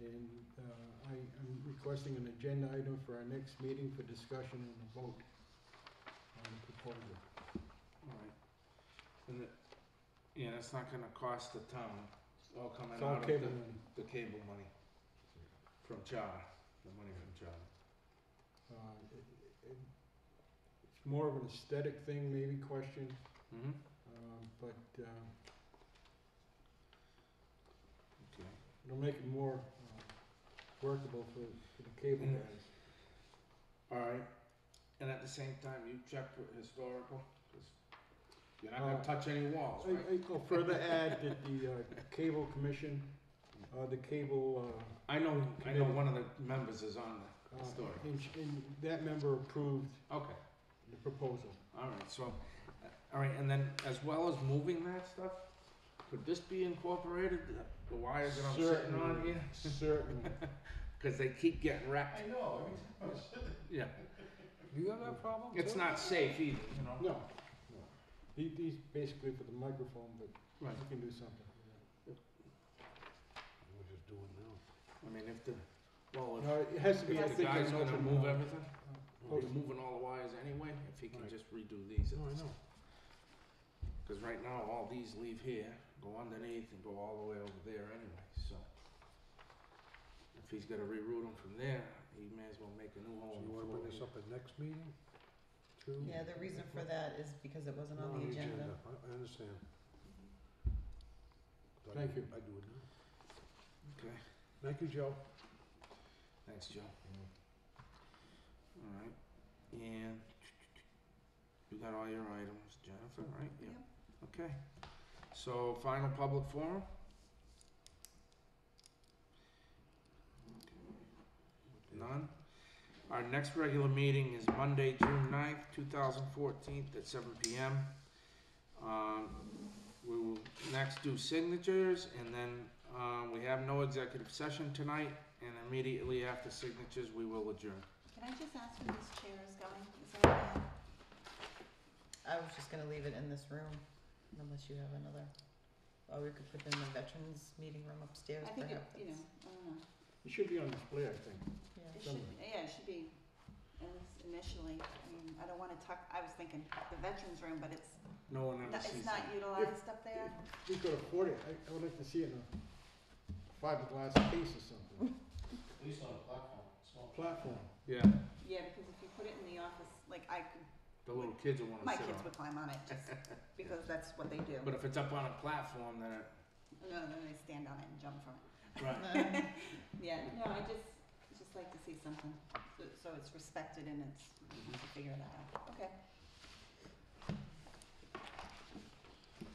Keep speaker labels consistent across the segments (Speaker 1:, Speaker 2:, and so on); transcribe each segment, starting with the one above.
Speaker 1: uh, requesting an agenda item for our next meeting for discussion and a vote on the proposal.
Speaker 2: Right. And it, yeah, that's not gonna cost the town, it's all coming
Speaker 1: It's all
Speaker 2: out of
Speaker 1: cable
Speaker 2: the,
Speaker 1: money.
Speaker 2: the cable money. From charter, the money from charter.
Speaker 1: Uh, it- it- It's more of an aesthetic thing, maybe question,
Speaker 2: Mm-hmm.
Speaker 1: um, but uh,
Speaker 2: Okay.
Speaker 1: it'll make it more uh, workable for for the cable
Speaker 2: Mm.
Speaker 1: guys.
Speaker 2: Alright, and at the same time, you check with historical, cause you're not gonna
Speaker 1: Uh,
Speaker 2: touch any walls,
Speaker 1: I-
Speaker 2: right?
Speaker 1: I- I'll further add that the uh, Cable Commission, uh, the Cable, uh,
Speaker 2: I know, I know
Speaker 1: Committee.
Speaker 2: one of the members is on the
Speaker 1: uh,
Speaker 2: Historic.
Speaker 1: and sh- and that member approved
Speaker 2: Okay,
Speaker 1: the proposal.
Speaker 2: alright, so, uh, alright, and then as well as moving that stuff, could this be incorporated, the- the wires that I'm sitting on
Speaker 1: Certainly,
Speaker 2: here?
Speaker 1: Certainly.
Speaker 2: Cause they keep getting wrecked,
Speaker 3: I know, every time
Speaker 4: oh,
Speaker 3: I sit there.
Speaker 2: yeah.
Speaker 4: You have that problem too?
Speaker 2: It's not safe either, you know?
Speaker 1: No, no. The- These basically for the microphone, but
Speaker 2: Right.
Speaker 1: you can do something.
Speaker 4: We'll just do it now.
Speaker 2: I mean, if the, well, if,
Speaker 1: No, it has to be, I
Speaker 2: if the
Speaker 1: think,
Speaker 2: guy's
Speaker 1: an
Speaker 2: gonna
Speaker 1: open
Speaker 2: move
Speaker 1: uh,
Speaker 2: everything,
Speaker 1: Oh,
Speaker 2: he's moving all the wires anyway, if he can
Speaker 4: Right.
Speaker 2: just redo these.
Speaker 4: No, I know.
Speaker 2: Cause right now, all these leave here, go underneath and go all the way over there anyway, so. If he's gonna reroute them from there, he may as well make a new
Speaker 4: So
Speaker 2: home.
Speaker 4: you wanna bring
Speaker 2: for
Speaker 4: this
Speaker 2: it.
Speaker 4: up at next meeting? Two?
Speaker 5: Yeah, the reason for that is because it wasn't
Speaker 4: No,
Speaker 5: on the agenda.
Speaker 4: I, I understand. But I
Speaker 1: Thank
Speaker 4: do-
Speaker 1: you.
Speaker 4: I do it now.
Speaker 2: Okay,
Speaker 4: Thank you, Joe.
Speaker 2: thanks, Joe.
Speaker 4: Mm-hmm.
Speaker 2: Alright, and you got all your items, Jennifer, right?
Speaker 4: Mm-hmm.
Speaker 2: Yeah.
Speaker 5: Yep.
Speaker 2: Okay, so final public forum? None? Our next regular meeting is Monday, June 9th, two thousand fourteen, at seven PM. Um, we will next do signatures, and then, um, we have no executive session tonight, and immediately after signatures, we will adjourn.
Speaker 6: Can I just ask where this chair is going? Is it okay?
Speaker 5: I was just gonna leave it in this room, unless you have another, or we could put it in the veterans meeting room upstairs
Speaker 6: I think, it-
Speaker 5: perhaps.
Speaker 6: you know, I don't know.
Speaker 1: It should be on display, I think.
Speaker 5: Yeah.
Speaker 6: It should, yeah, it should be, at least initially. I mean, I don't want to tuck, I was thinking the veterans room, but it's,
Speaker 2: No one ever
Speaker 6: it's
Speaker 2: sees
Speaker 6: not
Speaker 2: it.
Speaker 6: utilized up there.
Speaker 1: If we could afford it, I- I would like to see it in a fiberglass case or something,
Speaker 3: At least on the platform, small.
Speaker 1: platform.
Speaker 2: Yeah,
Speaker 6: Yeah, because if you put it in the office, like I could,
Speaker 2: the little kids will wanna sit on
Speaker 6: my
Speaker 2: it.
Speaker 6: kids would climb on it just because that's what they do.
Speaker 2: But if it's up on a platform, then it,
Speaker 6: No, no, they stand on it and jump from it.
Speaker 2: right,
Speaker 6: Yeah, no, I just, I just like to see something, so- so it's respected and it's, you can figure it out. Okay.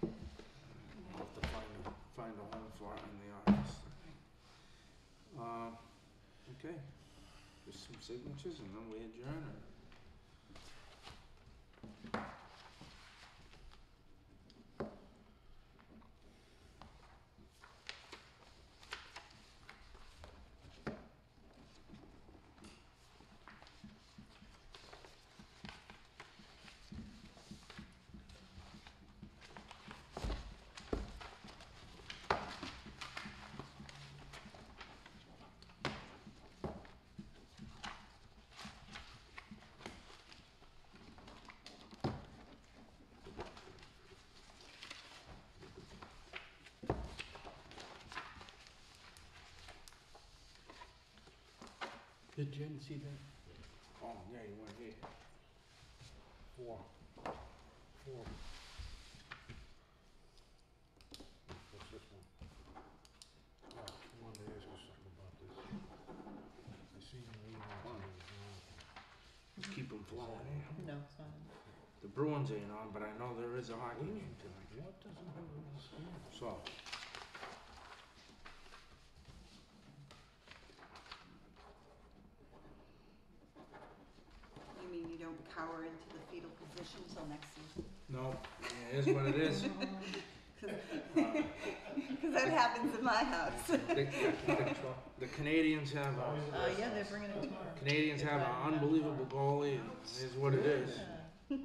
Speaker 2: we'll have to find a, find a home for it in the office. Um, okay, just some signatures and then we adjourn or?
Speaker 1: Did Jen see that?
Speaker 2: Oh, yeah, you weren't here.
Speaker 4: Four. Four. What's this one? Oh, I wanted to ask you something about this. I see you email.
Speaker 2: One. Just keep them flowing.
Speaker 5: No, it's not. in-
Speaker 2: The Bruins ain't on, but I know there is a hockey game tonight,
Speaker 4: What doesn't I understand?
Speaker 2: so.
Speaker 6: You mean you don't cower into the fetal position till next season?
Speaker 2: No, it is what it is. Uh,
Speaker 6: Because that happens in my house.
Speaker 2: The- The the Canadians have a,
Speaker 5: Uh, yeah, they're bringing it tomorrow.
Speaker 2: Canadians have an unbelievable goalie, and it is what it is.
Speaker 5: Yeah.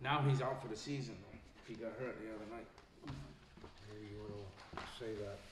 Speaker 2: Now he's out for the season though. He got hurt the other night.
Speaker 4: Maybe you wanna say that